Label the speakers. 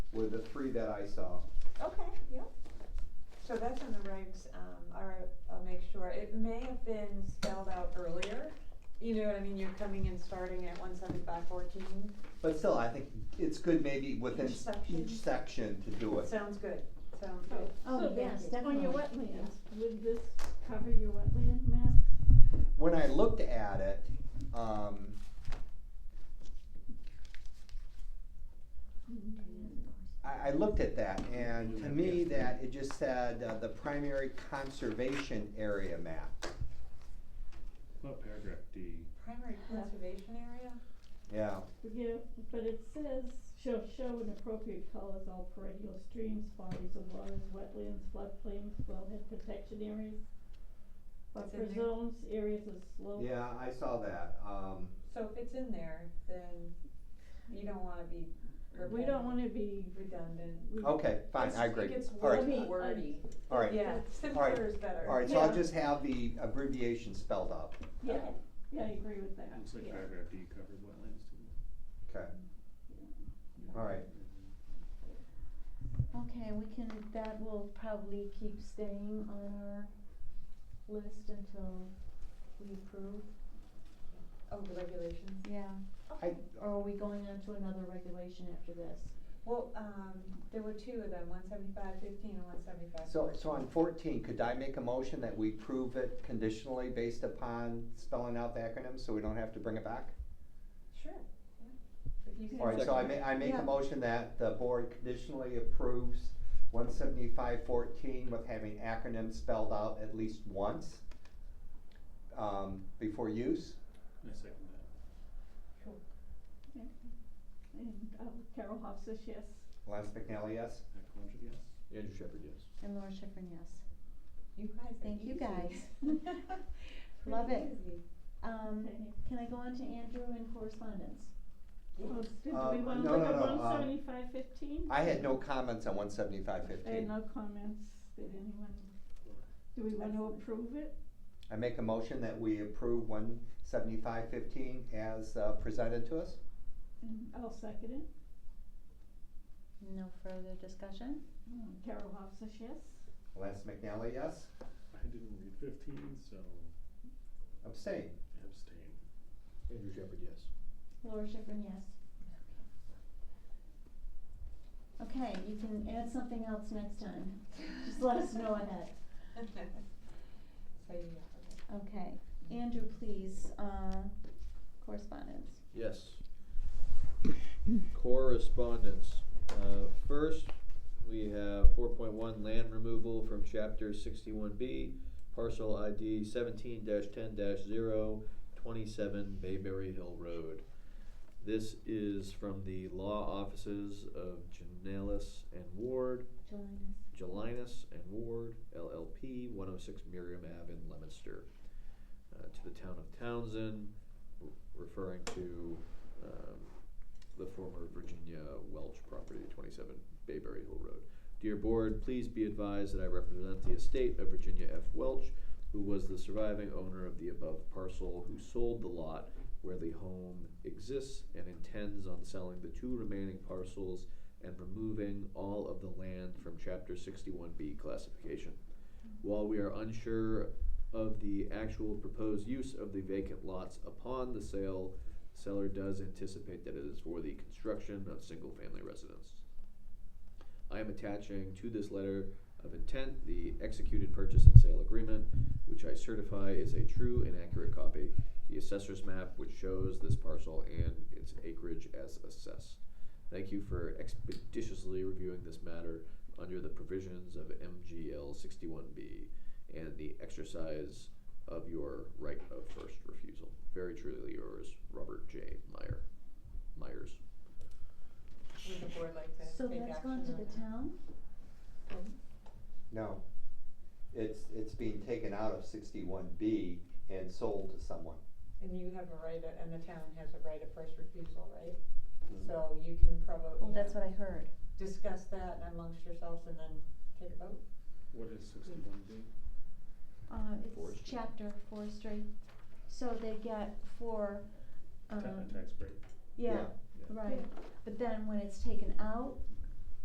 Speaker 1: were the three that I saw.
Speaker 2: Okay, yeah. So that's in the regs, um, all right, I'll make sure, it may have been spelled out earlier, you know what I mean, you're coming and starting at one seventy-five fourteen,
Speaker 1: But still, I think it's good maybe within
Speaker 2: Each section?
Speaker 1: each section to do it.
Speaker 2: sounds good, sounds good.
Speaker 3: Oh,
Speaker 4: So
Speaker 3: yes,
Speaker 4: On your
Speaker 3: definitely.
Speaker 4: wetlands, would this cover your wetland map?
Speaker 1: When I looked at it, um, I, I looked at that and to me that it just said uh, the primary conservation area map.
Speaker 5: Not paragraph D.
Speaker 2: Primary conservation area?
Speaker 1: Yeah,
Speaker 4: Yeah, but it says, shall show in appropriate colors all perennial streams, bodies of waters, wetlands, floodplains, wellhead protection areas,
Speaker 2: It's in
Speaker 4: buffer
Speaker 2: there.
Speaker 4: zones, areas of slope.
Speaker 1: yeah, I saw that, um,
Speaker 2: So if it's in there, then you don't wanna be
Speaker 4: We don't wanna be,
Speaker 2: redundant.
Speaker 4: we, uh,
Speaker 1: okay, fine,
Speaker 2: It's-
Speaker 1: I agree.
Speaker 2: It gets
Speaker 1: All right,
Speaker 4: I mean,
Speaker 2: wordy, wordy.
Speaker 1: all right.
Speaker 2: Yeah, simpler is better.
Speaker 1: All right, so I'll
Speaker 4: Yeah.
Speaker 1: just have the abbreviation spelled out.
Speaker 4: yeah, yeah, I agree with that,
Speaker 5: Looks like
Speaker 4: yeah.
Speaker 5: paragraph D covered wetlands too.
Speaker 1: Okay. All right.
Speaker 3: Okay, we can, that will probably keep staying on our list until we approve.
Speaker 2: Oh, the regulations?
Speaker 3: Yeah.
Speaker 1: I-
Speaker 3: Or are we going on to another regulation after this?
Speaker 2: Well, um, there were two of them, one seventy-five fifteen and one seventy-five
Speaker 1: So,
Speaker 2: fourteen.
Speaker 1: so on fourteen, could I make a motion that we prove it conditionally based upon spelling out the acronym, so we don't have to bring it back?
Speaker 2: Sure, yeah. If you
Speaker 1: All right, so I ma- I make a
Speaker 3: Yeah.
Speaker 1: motion that the board conditionally approves one seventy-five fourteen with having acronyms spelled out at least once um, before use.
Speaker 5: I second that.
Speaker 4: Okay. And, uh, Carol Hofstas, yes.
Speaker 1: Lance McNally, yes?
Speaker 5: Matt Calandra, yes?
Speaker 6: Andrew Shepherd, yes.
Speaker 3: And Laura Schifrin, yes.
Speaker 2: You guys are
Speaker 3: Thank you,
Speaker 2: easy.
Speaker 3: guys.
Speaker 2: Pretty
Speaker 3: Love it.
Speaker 2: easy.
Speaker 3: Um,
Speaker 4: Okay.
Speaker 3: can I go on to Andrew and correspondence?
Speaker 4: Well, oh, did we
Speaker 1: Uh,
Speaker 4: wanna
Speaker 1: no,
Speaker 4: look
Speaker 1: no,
Speaker 4: at
Speaker 1: no, um,
Speaker 4: one seventy-ve fifteen?
Speaker 1: I had no comments on one seventy-five
Speaker 4: I had
Speaker 1: fifteen.
Speaker 4: no comments, did anyone, do we wanna
Speaker 2: Excellent.
Speaker 4: approve it?
Speaker 1: I make a motion that we approve one seventy-five fifteen as uh, presented to us.
Speaker 4: And I'll second it.
Speaker 3: No further discussion?
Speaker 4: Mm, Carol Hofstas, yes.
Speaker 1: Lance McNally, yes?
Speaker 5: I didn't read fifteen, so
Speaker 1: Abstain.
Speaker 5: abstain.
Speaker 6: Andrew Shepherd, yes.
Speaker 3: Laura Schifrin, yes. Okay, you can add something else next time. Just let us know ahead.
Speaker 2: So, yeah, okay.
Speaker 3: Okay, Andrew, please, uh, correspondence.
Speaker 6: Yes. Correspondence. Uh, First, we have four point one land removal from chapter sixty-one B, parcel ID seventeen ten 27 Bayberry Hill Road. This is from the law offices of Janelis and Ward,
Speaker 3: Jelinas.
Speaker 6: Jelinus and Ward, LLP, one oh six Miriam Ave in Leominster, uh, to the town of Townsend, r- referring to, um, the former Virginia Welch property, twenty-seven Bayberry Hill Road. Dear Board, please be advised that I represent the estate of Virginia F. Welch, who was the surviving owner of the above parcel, who sold the lot where the home exists and intends on selling the two remaining parcels and removing all of the land from chapter sixty-one B classification. While we are unsure of the actual proposed use of the vacant lots upon the sale, seller does anticipate that it is for the construction of single-family residence. I am attaching to this letter of intent the executed purchase and sale agreement, which I certify is a true and accurate copy, the assessor's map which shows this parcel and its acreage as assessed. Thank you for expeditiously reviewing this matter under the provisions of MGL sixty-one B and the exercise of your right of first refusal. Very truly yours, Robert J. Meyer, Myers.
Speaker 2: Would the board like to
Speaker 3: So
Speaker 2: take
Speaker 3: that's
Speaker 2: action
Speaker 3: gone to
Speaker 2: on
Speaker 3: the
Speaker 2: that?
Speaker 3: town?
Speaker 1: No. It's, it's being taken out of sixty-one B and sold to someone.
Speaker 2: And you have a right, of- and the town has a right of first refusal, right?
Speaker 1: Mm-hmm.
Speaker 2: So you can probably.
Speaker 3: Oh, That's what I heard.
Speaker 2: Discuss that amongst yourselves and then take a vote.
Speaker 5: What is sixty-one D?
Speaker 3: Uh, it's
Speaker 6: Forestry.
Speaker 3: chapter forestry, so they get for,
Speaker 5: Ta-
Speaker 3: um,
Speaker 5: tax break.
Speaker 3: yeah,
Speaker 1: Yeah.
Speaker 3: right. But then when it's taken out,